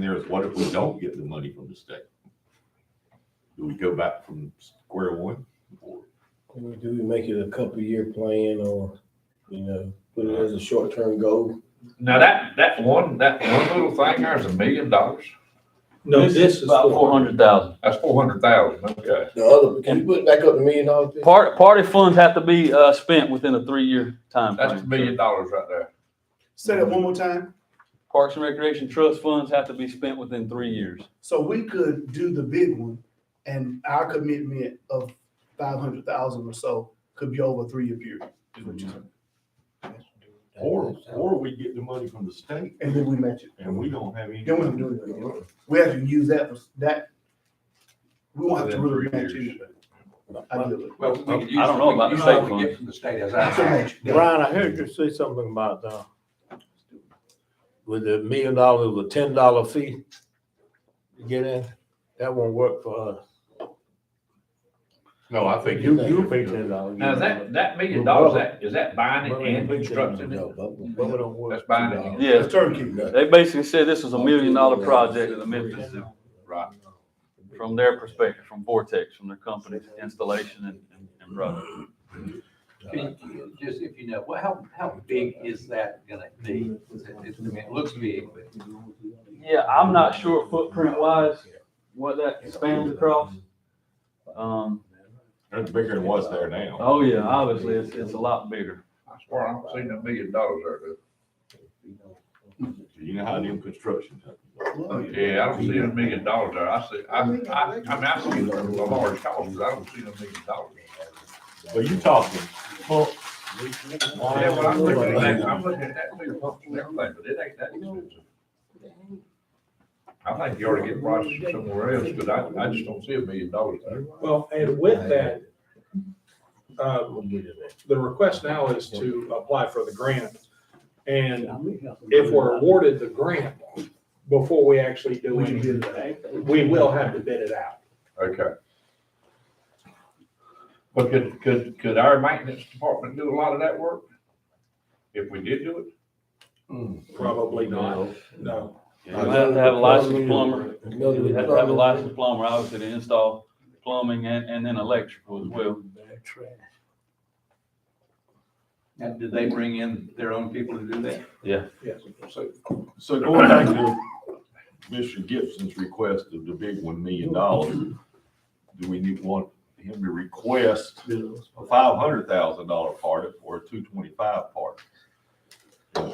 there is what if we don't get the money from the state? Do we go back from square one? Do we- Do we make it a couple year plan or, you know, put it as a short term goal? Now that, that one, that one little thing there is a million dollars. No, this is About for- four hundred thousand. That's four hundred thousand, okay. The other, can you put it back up to million dollars? Jay? Part, party funds have to be, uh, spent within a three-year time That's a million frame. dollars right there. Say Mm-hmm. that one more time. Parks and Recreation Trust funds have to be spent within three years. So we could do the big one and our commitment of five hundred thousand or so could be over a three-year period. is what you're saying. Or, or we get the money from the state And then we match it. and we don't have any. Then we don't do it again. We have to use that, for that. We won't have to really match anything. ideally. Well, we could use- I don't know about the we could use state what we funds. get From the state as That's a I. match. Brian, I heard you say something about, uh, with the million dollars, with ten dollar fee to get in, that won't work for us. No, I think. You, you pay ten dollars. Now, is that, that million dollars, that, is that buying it and constructing No, it? but- But we don't work. That's buying No. it. Yeah, It's turnkey. they basically said this was a million-dollar project in the Memphis, Right. from their perspective, from Vortex, from their company's installation and, and- and project. Can you- Just if you know, well, how, how big is that gonna be? Is it- it's- I mean, it looks big, but Yeah, I'm not sure footprint-wise what that spans across. Um, That's bigger than what's there now. oh yeah, obviously, it's, it's a lot bigger. I swear, I don't seen that million dollars there. dude. You know how them construction. companies are. Yeah, I don't see a million dollars there. I see, I, I, I mean, I see a large cost, but I don't see a million dollars. But you talking, well, Yeah, but I'm looking at that, I'm looking at that too, and everything, but it ain't that expensive. I think you ought to get prices from somewhere else, because I, I just don't see a million dollars there. Well, and with that, um, the request now is to apply for the grant. And if we're awarded the grant before we actually do We can bid anything, it out. we will have to bid it out. Okay. But could, could, could our maintenance department do a lot of that work? If we did do it? Probably not, no. You have to have a licensed plumber. No, You have to have a licensed plumber, obviously, to install plumbing and, and then electrical as well. and did they bring in their own people to do that? So going back to Mr. Gibson's request of the big one million dollars, do we need, want him to request a five hundred thousand dollar part of- or a two twenty-five part?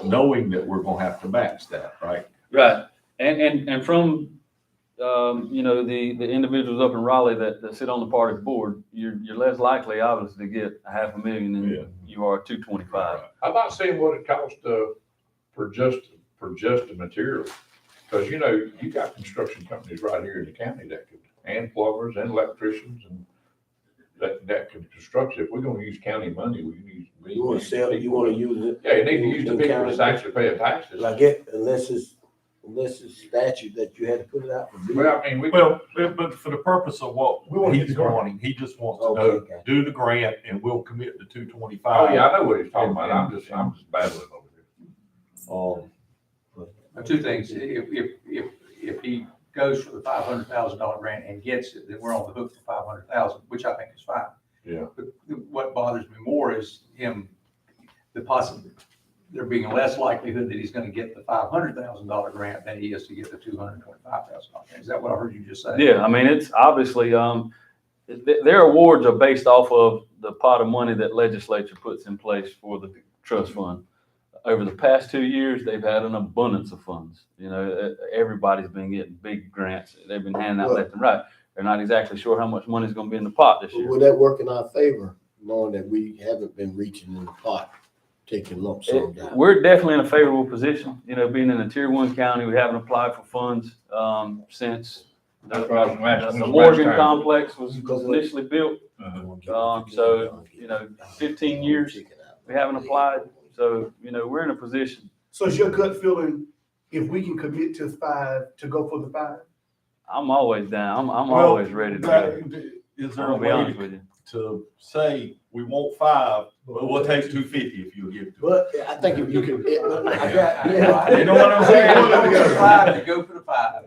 Knowing that we're gonna have to match that, right? Right. And, and, and from, um, you know, the, the individuals up in Raleigh that, that sit on the party board, you're, you're less likely, obviously, to get a half a million Yeah. than you are two twenty-five. I'm not seeing what it costs, uh, for just, for just the material. Because, you know, you got construction companies right here in the county that could, and plumbers and electricians and that, that could construct it. If we're gonna use county money, we need. we You wanna need sell, you people. wanna use it, Yeah, you need to use the the people county- that's actually paying taxes. like it, unless it's, unless it's statute that you had to put it out for bid. Well, I mean, we. Well, but but for the purpose of what We wanna get he's the grant. wanting, he just wants to know, Okay, do the grant and we'll commit the two twenty-five. Oh, yeah, I know what he's talking about. I'm just, I'm just babbling over here. Um, Now, Two things, if, if, if, if he goes for the five hundred thousand dollar grant and gets it, then we're on the hook for five hundred thousand, which I think is fine. Yeah. But What bothers me more is him, the possible, there being a less likelihood that he's gonna get the five hundred thousand dollar grant than he is to get the two hundred twenty-five thousand dollar grant. Is that what I heard you just say? Yeah, I mean, it's obviously, um, th- their awards are based off of the pot of money that legislature puts in place for the trust fund. Over the past two years, they've had an abundance of funds. You know, e- everybody's been getting big grants. They've been handing out left and right. They're not exactly sure how much money's gonna be in the pot this year. Would that work in our favor, knowing that we haven't been reaching in the pot, taking lump sum It- down? We're definitely in a favorable position, you know, being in a tier one county, we haven't applied for funds, um, since That's what I was gonna ask. the When's the last Morgan time? complex was was initially built. Um, so, you know, 15 years, we haven't applied. So, you know, we're in a position, So is your gut feeling, if we can commit to five, to go for the five? I'm always down, I'm, I'm Well, always ready to go. that- is I'm there a gonna be way, honest to- with you. to say, we want five, but we'll take two fifty if you'll give it to us. But I think if you can, I got, Yeah, You know what I'm saying? Go for the five, go for the five.